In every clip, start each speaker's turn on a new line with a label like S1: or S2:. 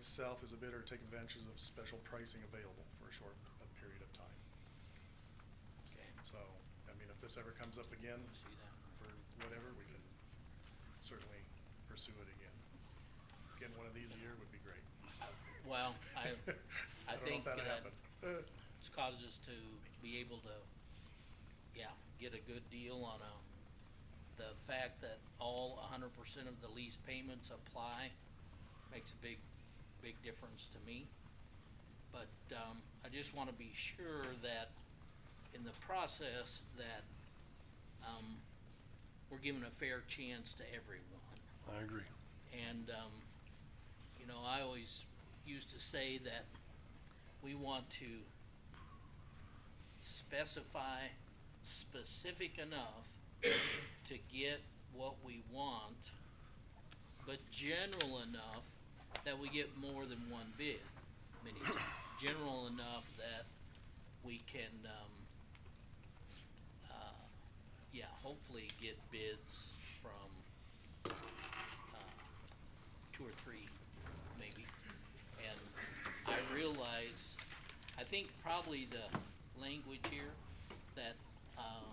S1: itself as a bidder take advantage of special pricing available for a short uh, period of time.
S2: Okay.
S1: So, I mean, if this ever comes up again
S2: See that one.
S1: for whatever, we can certainly pursue it again. Getting one of these a year would be great.
S2: Well, Oh, I, I think
S1: don't know if that'll
S2: that
S1: happen. Uh,
S2: it's caused us to be able to, yeah, get a good deal on a, the fact that all hundred percent of the lease payments apply makes a big, big difference to me. But, um, I just wanna be sure that in the process that, um, we're given a fair chance to everyone.
S3: I agree.
S2: And, um, you know, I always used to say that we want to specify specific enough to get what we want, but general enough that we get more than one bid. Many, times. general enough that we can, um, uh, yeah, hopefully get bids from uh, two or three, maybe. And I realize, I think probably the language here that, uh,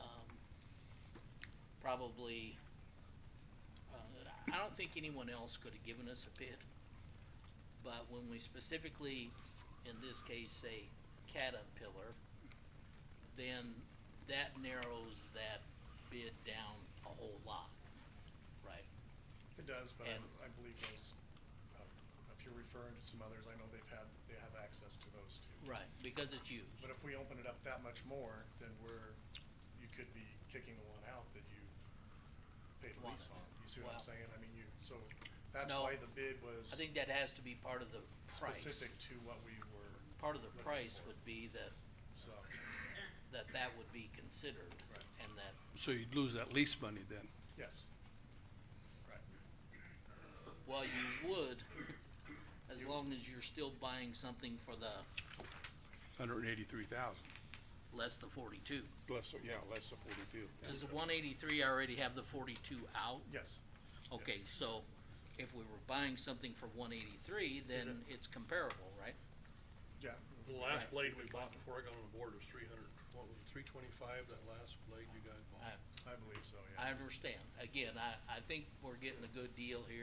S2: um, probably, uh, I don't think anyone else could have given us a bid. But when we specifically, in this case, say Caterpillar, then that narrows that bid down a whole lot, right?
S1: It does, but I,
S2: And-
S1: I believe those, um, if you're referring to some others, I know they've had, they have access to those too.
S2: Right, because it's used.
S1: But if we open it up that much more, then we're, you could be kicking the one out that you paid a lease on. You see what
S2: Wow.
S1: I'm saying? I mean, you, so that's
S2: No.
S1: why the bid was
S2: I think that has to be part of the price.
S1: specific to what we were,
S2: Part of the
S1: looking
S2: price
S1: for.
S2: would be that,
S1: so,
S2: that that would be considered
S1: Right.
S2: and that,
S3: So you'd lose that lease money then?
S1: yes. Right,
S2: well, you would, as long as you're still buying something for the,
S3: Hundred and eighty-three thousand,
S2: less the forty-two.
S3: less, yeah, less the forty-two. yeah.
S2: Does the one eighty-three already have the forty-two out?
S1: yes.
S2: Okay,
S1: Yes.
S2: so if we were buying something for one eighty-three, then it's comparable, right?
S1: Yeah,
S4: The last
S2: Right.
S4: blade we bought before I got on the board was three hundred, what was it, three twenty-five, that last blade you guys bought?
S1: I
S2: I,
S1: believe so,
S2: I
S1: yeah.
S2: understand. Again, I, I think we're getting a good deal here.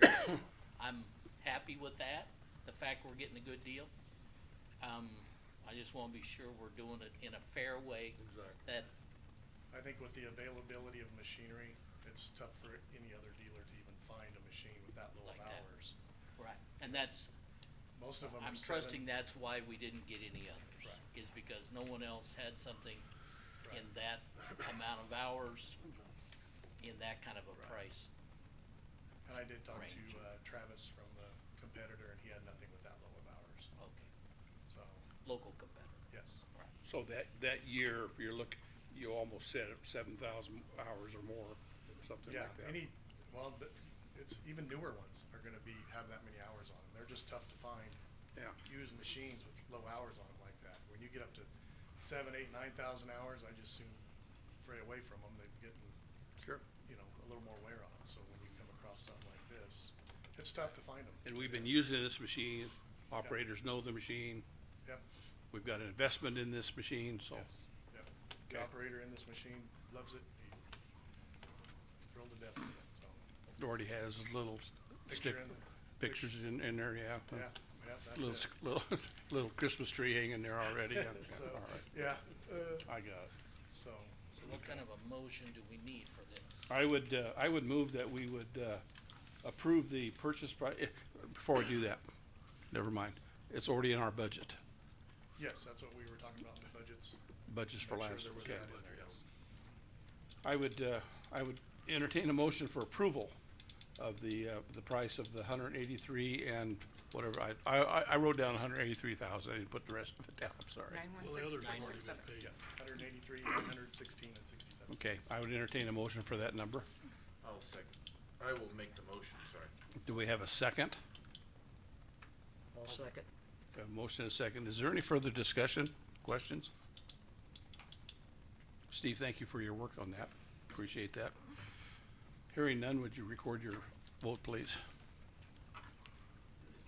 S2: I'm happy with that, the fact we're getting a good deal. Um, I just wanna be sure we're doing it in a fair way.
S4: Exactly.
S2: That,
S1: I think with the availability of machinery, it's tough for any other dealer to even find a machine with that low of
S2: Like that.
S1: hours.
S2: right, and that's,
S1: Most of them are
S2: I'm
S1: seven-
S2: trusting that's why we didn't get any others.
S1: Right.
S2: Is because no one else had something in that amount of hours, in that kind of a
S1: Right.
S2: price.
S1: And I did talk to
S2: range.
S1: uh, Travis from the competitor, and he had nothing with that low of hours,
S2: Okay,
S1: so,
S2: local competitor,
S1: yes.
S2: right.
S3: So that, that year, you're look, you almost said seven thousand hours or more, something
S1: Yeah,
S3: like that.
S1: any, well, the, it's, even newer ones are gonna be, have that many hours on them, they're just tough to find.
S3: Yeah.
S1: Used machines with low hours on them like that, when you get up to seven, eight, nine thousand hours, I just soon fray away from them, they're getting,
S3: Sure.
S1: you know, a little more wear on them, so when you come across something like this, it's tough to find them,
S3: And we've been using this machine, operators know the machine,
S1: yep,
S3: we've got an investment in this machine, so.
S1: yes, yep. The
S3: Okay.
S1: operator in this machine loves it, he thrilled to death with it, so.
S3: Doherty has a little
S1: Picture
S3: stick,
S1: in the-
S3: pictures in, in there, yeah.
S1: Yeah, yeah, that's
S3: Little,
S1: it.
S3: sc- little, little Christmas tree hanging there already, yeah, yeah,
S1: So,
S3: all right,
S1: yeah, uh,
S3: I got it.
S1: so,
S2: So what kind of a motion do we need for this?
S3: I would, uh, I would move that we would, uh, approve the purchase price, before I do that, never mind, it's already in our budget,
S1: yes, that's what we were talking about in the budgets.
S3: budgets for
S1: Make sure
S3: last,
S1: there was
S3: okay.
S1: that in there, yes.
S3: I would, uh, I would entertain a motion for approval of the, uh, the price of the hundred and eighty-three and whatever, I, I, I- I wrote down hundred and eighty-three thousand, I didn't put the rest of it down, I'm sorry.
S5: Nine one
S4: Well, the
S5: six
S4: others have
S5: nine
S4: already
S5: six
S4: been
S5: seven.
S4: paid.
S1: Yes, hundred and eighty-three, eight hundred and sixteen, and sixty-seven.
S3: Okay, I would entertain a motion for that number,
S6: I'll second. I will make the motion, sorry.
S3: do we have a second?
S7: I'll second.
S3: A motion and a second. Is there any further discussion, questions? Steve, thank you for your work on that. Appreciate that. Hearing none, would you record your vote, please?